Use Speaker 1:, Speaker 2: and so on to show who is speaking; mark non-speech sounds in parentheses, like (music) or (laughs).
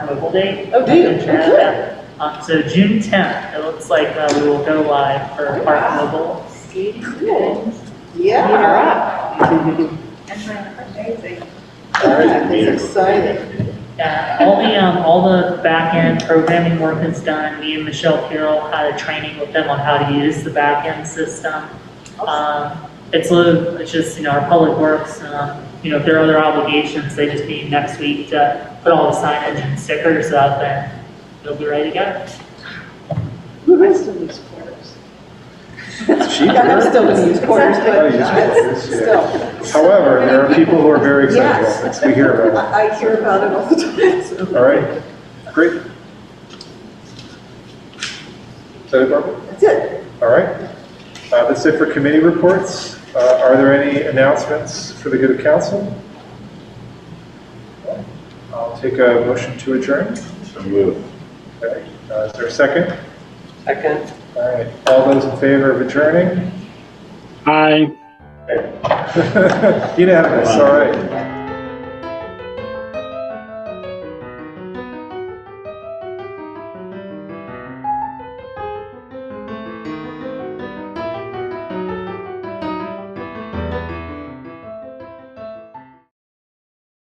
Speaker 1: have a whole day.
Speaker 2: Oh, do you?
Speaker 1: And chat
Speaker 2: Okay.
Speaker 1: about it. Uh, So June 10th, it looks like uh, we will go live for Park Mobile.
Speaker 2: Cool.
Speaker 3: Meet her
Speaker 2: Yeah.
Speaker 3: up.
Speaker 2: That's exciting.
Speaker 1: Yeah, all the, um, all the backend programming work is done. Me and Michelle Carroll had a training with them on how to use the backend system. Um, it's a, it's just, you know, our public works, um, you know, if there are other obligations, they just need next week to put all the signage and stickers up and it'll be ready to go.
Speaker 2: I'm still gonna use quarters,
Speaker 4: Oh,
Speaker 2: but
Speaker 4: you just
Speaker 2: that's
Speaker 4: want this, yeah.
Speaker 2: still.
Speaker 4: However, there are people who are very excited about
Speaker 2: Yes.
Speaker 4: this. We hear
Speaker 2: (laughs)
Speaker 4: about
Speaker 2: I I hear about it all the time, so.
Speaker 4: it. All right, great. Is that it, Barbara?
Speaker 2: That's it.
Speaker 4: All right. Uh, That's it for committee reports. Uh, Are there any announcements for the good of council? I'll take a motion to adjourn.
Speaker 5: So moved.
Speaker 4: Okay. Uh, Is there a second?
Speaker 6: Second.
Speaker 4: All right, all those in favor of adjourning?
Speaker 7: Aye.
Speaker 4: (laughs) Okay. Unanimous, all right.